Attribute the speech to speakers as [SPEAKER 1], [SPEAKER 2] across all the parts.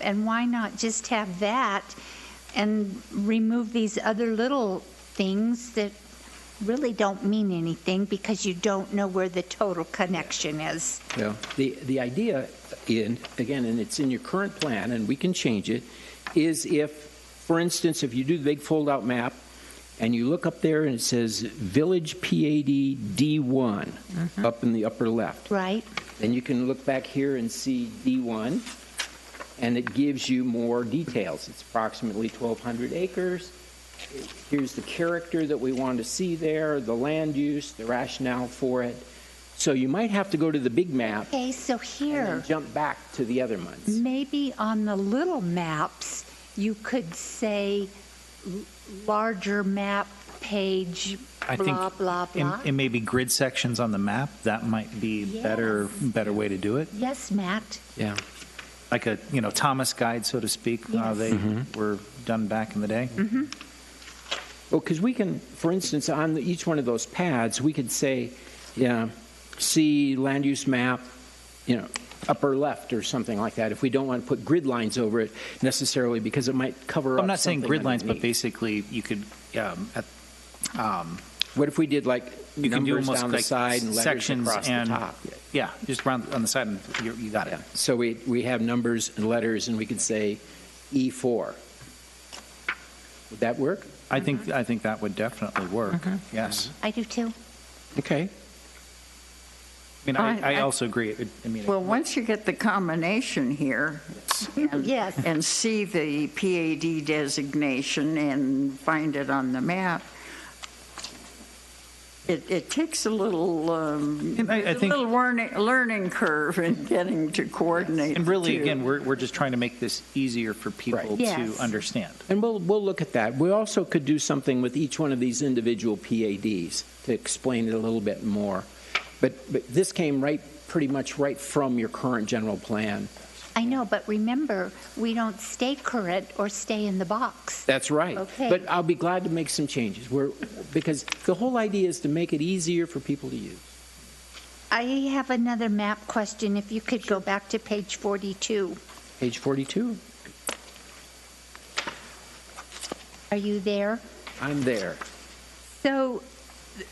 [SPEAKER 1] and why not just have that and remove these other little things that really don't mean anything because you don't know where the total connection is?
[SPEAKER 2] Yeah, the, the idea, in, again, and it's in your current plan, and we can change it, is if, for instance, if you do the big fold-out map, and you look up there and it says Village PAD D1, up in the upper left,
[SPEAKER 1] Right?
[SPEAKER 2] then you can look back here and see D1, and it gives you more details. It's approximately 1,200 acres. Here's the character that we want to see there, the land use, the rationale for it. So you might have to go to the big map
[SPEAKER 1] Okay, so
[SPEAKER 2] and
[SPEAKER 1] here.
[SPEAKER 2] then jump back to the other months.
[SPEAKER 1] Maybe on the little maps, you could say l- larger map, page,
[SPEAKER 3] I think
[SPEAKER 1] blah, blah,
[SPEAKER 3] And-
[SPEAKER 1] blah.
[SPEAKER 3] And maybe grid sections on the map, that might be better, better way to do it.
[SPEAKER 1] Yes, Matt,
[SPEAKER 2] Yeah.
[SPEAKER 3] Like a, you know, Thomas guide, so to speak, how
[SPEAKER 1] Yes. Mm-hmm.
[SPEAKER 3] they
[SPEAKER 2] Mm-hmm.
[SPEAKER 3] were done back in the day.
[SPEAKER 2] Well, because we can, for instance, on the- each one of those pads, we could say, yeah, see land use map, you know, upper left or something like that, if we don't want to put grid lines over it necessarily, because it might cover up
[SPEAKER 3] I'm not saying
[SPEAKER 2] something
[SPEAKER 3] grid lines, but
[SPEAKER 2] underneath.
[SPEAKER 3] basically you could, um, at- um,
[SPEAKER 2] What if we did like
[SPEAKER 3] you can do
[SPEAKER 2] numbers
[SPEAKER 3] almost
[SPEAKER 2] down the
[SPEAKER 3] like
[SPEAKER 2] side and letters
[SPEAKER 3] sections
[SPEAKER 2] across the
[SPEAKER 3] and,
[SPEAKER 2] top?
[SPEAKER 3] yeah, just round on the side and you you got it.
[SPEAKER 2] So we, we have numbers and letters, and we could say E4. Would that work?
[SPEAKER 3] I think, I think that would definitely work,
[SPEAKER 1] Mm-hmm.
[SPEAKER 3] yes.
[SPEAKER 1] I do too.
[SPEAKER 2] Okay.
[SPEAKER 3] I mean,
[SPEAKER 4] I-
[SPEAKER 3] I, I
[SPEAKER 4] I-
[SPEAKER 3] also agree, It- I mean,
[SPEAKER 4] Well, once you get the combination here. and-
[SPEAKER 1] Yes.
[SPEAKER 4] And see the PAD designation and find it on the map, it, it takes a little, um,
[SPEAKER 3] And I- I
[SPEAKER 4] a
[SPEAKER 3] think-
[SPEAKER 4] little learning, learning curve in getting to coordinate.
[SPEAKER 3] and really,
[SPEAKER 4] the two.
[SPEAKER 3] again, we're, we're just trying to make this easier for people to
[SPEAKER 1] Yes.
[SPEAKER 3] understand.
[SPEAKER 2] And we'll, we'll look at that. We also could do something with each one of these individual PADs to explain it a little bit more. But, but this came right, pretty much right from your current general plan.
[SPEAKER 1] I know, but remember, we don't stay current or stay in the box.
[SPEAKER 2] That's right.
[SPEAKER 1] Okay.
[SPEAKER 2] But I'll be glad to make some changes. We're, because the whole idea is to make it easier for people to use.
[SPEAKER 1] I have another map question, if you could go back to page 42.
[SPEAKER 2] Page 42,
[SPEAKER 1] Are you there?
[SPEAKER 2] I'm there.
[SPEAKER 1] So th-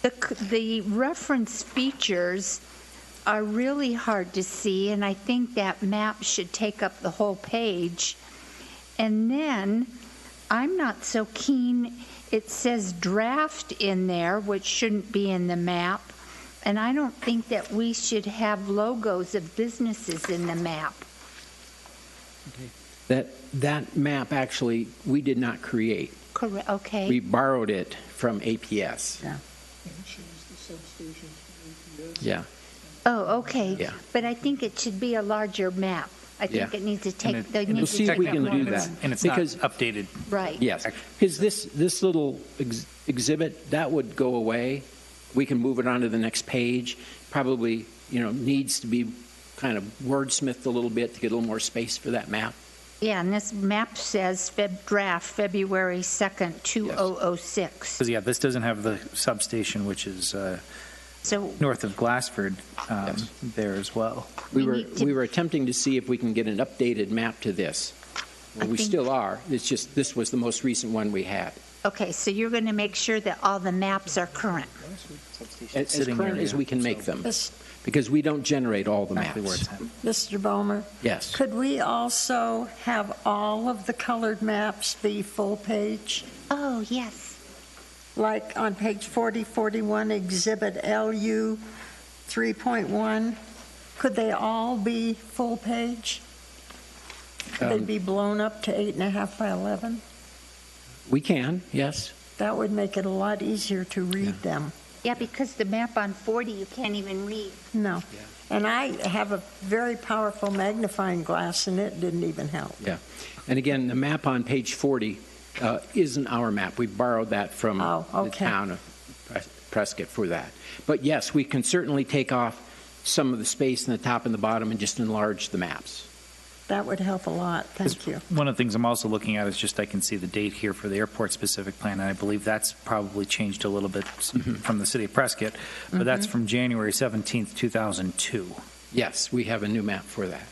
[SPEAKER 1] the, c- the reference features are really hard to see, and I think that map should take up the whole page. And then, I'm not so keen, it says draft in there, which shouldn't be in the map, and I don't think that we should have logos of businesses in the map.
[SPEAKER 2] That, that map actually, we did not create.
[SPEAKER 1] Correct, okay?
[SPEAKER 2] We borrowed it from APS. Yeah. Yeah.
[SPEAKER 1] Oh, okay.
[SPEAKER 2] Yeah.
[SPEAKER 1] But I think it should be a larger map. I think
[SPEAKER 2] Yeah.
[SPEAKER 1] it needs to
[SPEAKER 3] And
[SPEAKER 1] take,
[SPEAKER 3] it-
[SPEAKER 1] they
[SPEAKER 3] and
[SPEAKER 1] need
[SPEAKER 3] it's
[SPEAKER 1] to take
[SPEAKER 2] we can
[SPEAKER 1] that
[SPEAKER 2] do
[SPEAKER 3] technically-
[SPEAKER 1] longer.
[SPEAKER 3] and it's-
[SPEAKER 2] that.
[SPEAKER 3] And it's not
[SPEAKER 2] Because-
[SPEAKER 3] updated
[SPEAKER 1] Right.
[SPEAKER 2] Yes, because this, this little ex- exhibit, that would go away. We can move it on to the next page. Probably, you know, needs to be kind of wordsmithed a little bit to get a little more space for that map.
[SPEAKER 1] Yeah, and this map says Feb, draft, February oh 2nd, 2006.
[SPEAKER 3] Because, yeah, this doesn't have the substation, which is uh,
[SPEAKER 1] So,
[SPEAKER 3] north of Glassford um,
[SPEAKER 2] Yes.
[SPEAKER 3] there as well.
[SPEAKER 2] We
[SPEAKER 1] We
[SPEAKER 2] were,
[SPEAKER 1] need to-
[SPEAKER 2] we were attempting to see if we can get an updated map to this.
[SPEAKER 1] I
[SPEAKER 2] We
[SPEAKER 1] think-
[SPEAKER 2] still are, it's just, this was the most recent one we had.
[SPEAKER 1] okay, so you're going to make sure that all the maps are current.
[SPEAKER 2] As as
[SPEAKER 3] Sitting
[SPEAKER 2] current
[SPEAKER 3] area,
[SPEAKER 2] as we can make them,
[SPEAKER 5] Mis-
[SPEAKER 2] because we don't generate all the
[SPEAKER 3] Exactly where
[SPEAKER 2] maps.
[SPEAKER 3] it's at.
[SPEAKER 5] Mr. Bowmer,
[SPEAKER 2] Yes.
[SPEAKER 5] could we also have all of the colored maps be full page?
[SPEAKER 1] Oh, yes.
[SPEAKER 5] Like on page 40, 41, Exhibit LU 3.1, could they all be full page? Could they
[SPEAKER 2] Um,
[SPEAKER 5] be blown up to eight and a half by 11?
[SPEAKER 2] We can, yes.
[SPEAKER 5] That would make it a lot easier to read them.
[SPEAKER 1] Yeah, because the map on 40, you can't even read.
[SPEAKER 5] No. And I have a very powerful magnifying glass, and it didn't even help.
[SPEAKER 2] And again, the map on page 40 uh, isn't our map. We borrowed that from
[SPEAKER 5] Oh,
[SPEAKER 2] the
[SPEAKER 5] okay.
[SPEAKER 2] town of Pres- Prescott for that. But yes, we can certainly take off some of the space in the top and the bottom and just enlarge the maps.
[SPEAKER 5] That would help a lot, thank you.
[SPEAKER 3] One of the things I'm also looking at is just I can see the date here for the airport-specific plan, and I believe that's probably changed a little bit s-
[SPEAKER 2] Mm-hmm.
[SPEAKER 3] from the city of Prescott, but that's from January 17th, 2002.
[SPEAKER 2] Yes, we have a new map for that.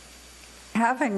[SPEAKER 4] having